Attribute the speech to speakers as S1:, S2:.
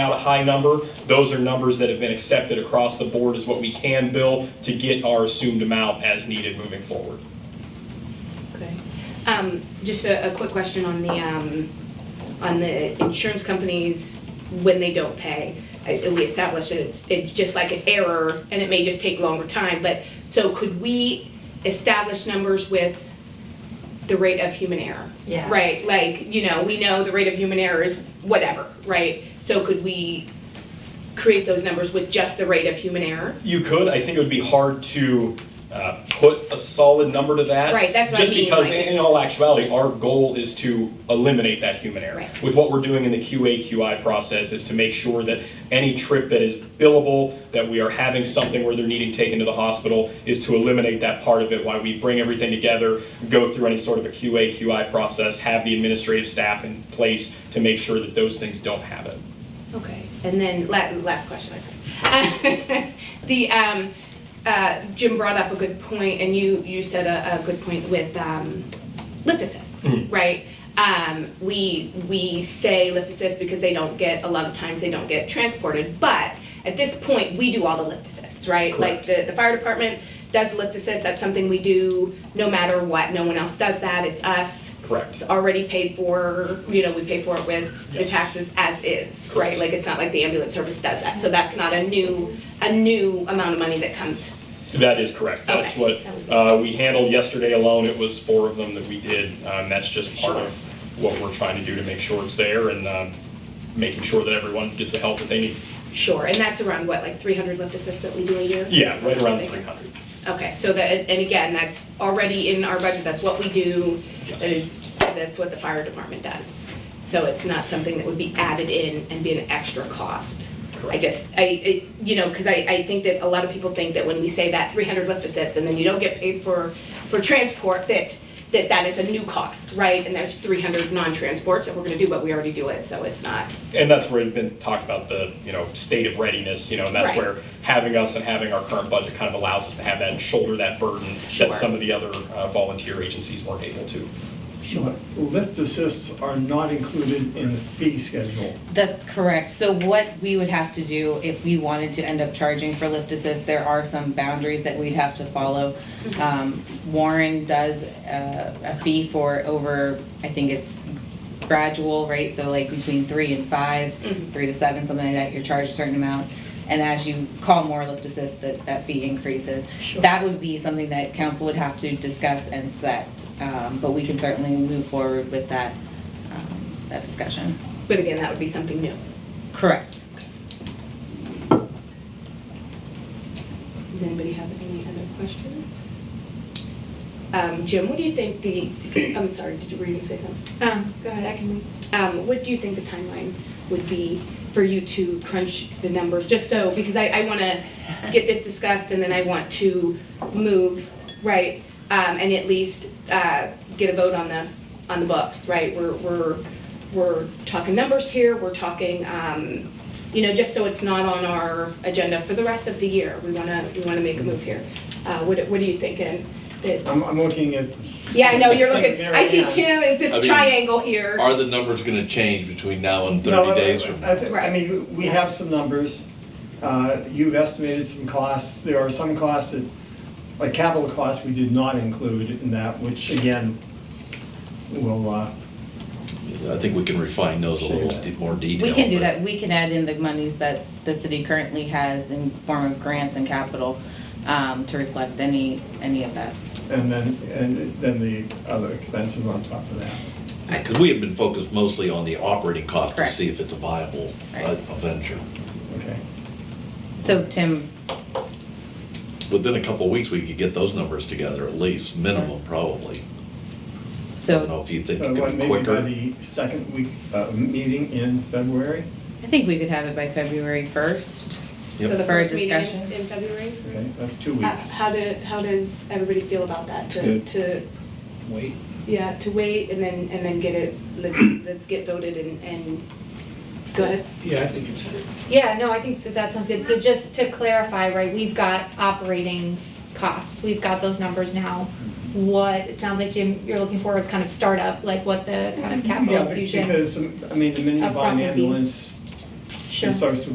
S1: out a high number, those are numbers that have been accepted across the board is what we can bill to get our assumed amount as needed moving forward.
S2: Okay. Um, just a, a quick question on the, um, on the insurance companies when they don't pay. I- We established that it's, it's just like an error and it may just take longer time, but, so could we establish numbers with the rate of human error?
S3: Yeah.
S2: Right, like, you know, we know the rate of human error is whatever, right? So could we create those numbers with just the rate of human error?
S1: You could, I think it would be hard to uh, put a solid number to that.
S2: Right, that's what I mean,
S1: Just because
S2: like
S1: in- in
S2: it's-
S1: all actuality, our goal is to eliminate that human error.
S2: Right.
S1: With what we're doing in the QA, QI process is to make sure that any trip that is billable, that we are having something where they're needing taken to the hospital, is to eliminate that part of it, why we bring everything together, go through any sort of a QA, QI process, have the administrative staff in place to make sure that those things don't happen.
S2: Okay, and then la- last question, I said. The, um, uh, Jim brought up a good point, and you, you said a, a good point with, um, lift assist, right? Um, we, we say lift assist because they don't get, a lot of times they don't get transported, but at this point, we do all the lift assists, right? Like the, the fire department does lift assist, that's something we do no matter what, no one else does that, it's us.
S1: Correct.
S2: It's already paid for, you know, we pay for it with the
S1: Yes.
S2: taxes as is, right? Like, it's not like the ambulance service does that, so that's not a new, a new amount of money that comes.
S1: That is correct. That's what
S2: Okay.
S1: uh, we handled yesterday alone. It was four of them that we did. Um, That's just part of what we're trying to do to make sure it's there and um, making sure that everyone gets the help that they need.
S2: Sure, and that's around what, like three hundred lift assists that we do a year?
S1: Yeah, right around 300.
S2: Okay, so that, and again, that's already in our budget, that's what we do.
S1: Yes.
S2: That is, that's what the fire department does. So it's not something that would be added in and be an extra cost. I
S1: Correct.
S2: just, I, it, you know, because I, I think that a lot of people think that when we say that three hundred lift assist and then you don't get paid for, for transport, that, that that is a new cost, right? And there's three hundred non-transports that we're gonna do, but we already do it, so it's not.
S1: And that's where it's been talked about the, you know, state of readiness, you know, and that's
S2: Right.
S1: where having us and having our current budget kind of allows us to have that and shoulder that burden
S2: Sure.
S1: that some of the other uh, volunteer agencies weren't able to.
S3: Sure.
S4: Lift assists are not included in the fee schedule.
S3: That's correct. So what we would have to do if we wanted to end up charging for lift assist, there are some boundaries that we'd have to follow. Um, Warren does a, a fee for over, I think it's gradual, right? So like between three and five, three to seven, something like that, you're charged a certain amount. And as you call more lift assist, that, that fee increases.
S2: Sure.
S3: That would be something that council would have to discuss and set, um, but we can certainly move forward with that, um, that discussion.
S2: But again, that would be something new.
S3: Correct.
S2: Does anybody have any other questions? Um, Jim, what do you think the, I'm sorry, did you, were you gonna say something?
S5: Um, go ahead, I can,
S2: Um, what do you think the timeline would be for you to crunch the numbers, just so, because I, I wanna get this discussed and then I want to move, right? Um, and at least, uh, get a vote on the, on the books, right? We're, we're, we're talking numbers here, we're talking, um, you know, just so it's not on our agenda for the rest of the year. We wanna, we wanna make a move here. Uh, what, what are you thinking? That,
S4: I'm, I'm looking at.
S2: yeah, I know, you're looking, I see
S4: Marianne.
S2: Tim, it's
S6: I
S2: this
S6: mean,
S2: triangle here.
S6: Are the numbers gonna change between now and
S4: No, I-
S6: thirty days from
S4: I
S6: now?
S4: thi- I mean, we have some numbers. Uh, You've estimated some costs. There are some costs that, like capital costs, we did not include in that, which again, will, uh,
S6: I think we can refine those a little bit more detail.
S3: We can do
S6: but-
S3: that, we can add in the monies that the city currently has in form of grants and capital um, to reflect any, any of that.
S4: and then, and then the other expenses on top of that.
S6: Yeah, Cause we have been focused mostly on the operating cost to
S3: Correct.
S6: see if it's a viable uh,
S3: Right.
S6: venture.
S4: Okay.
S3: So Tim,
S6: Within a couple of weeks, we could get those numbers together at least, minimum probably. I don't
S3: so
S6: know if you think
S4: So
S6: it
S4: what,
S6: could be
S4: maybe by
S6: quicker.
S4: the second week, uh, meeting in February?
S3: I think we could have it by February 1st.
S2: So
S6: Yep.
S2: the
S3: For a
S2: first meeting in
S3: discussion.
S2: in February?
S4: Okay, that's two
S2: Uh,
S4: weeks.
S2: How do, how does everybody feel about that? To,
S7: Good.
S2: to,
S7: Wait.
S2: yeah, to wait and then, and then get it, let's, let's get voted and, and go ahead.
S7: Yeah, I think it's good.
S5: yeah, no, I think that that sounds good. So just to clarify, right, we've got operating costs. We've got those numbers now. What, it sounds like Jim, you're looking for is kind of startup, like what the kind of
S4: Yeah,
S5: capital
S4: be-
S5: infusion.
S4: because, I mean, the mini
S5: Up front
S4: bond
S5: would be-
S4: ambulance
S5: Sure.
S4: It starts to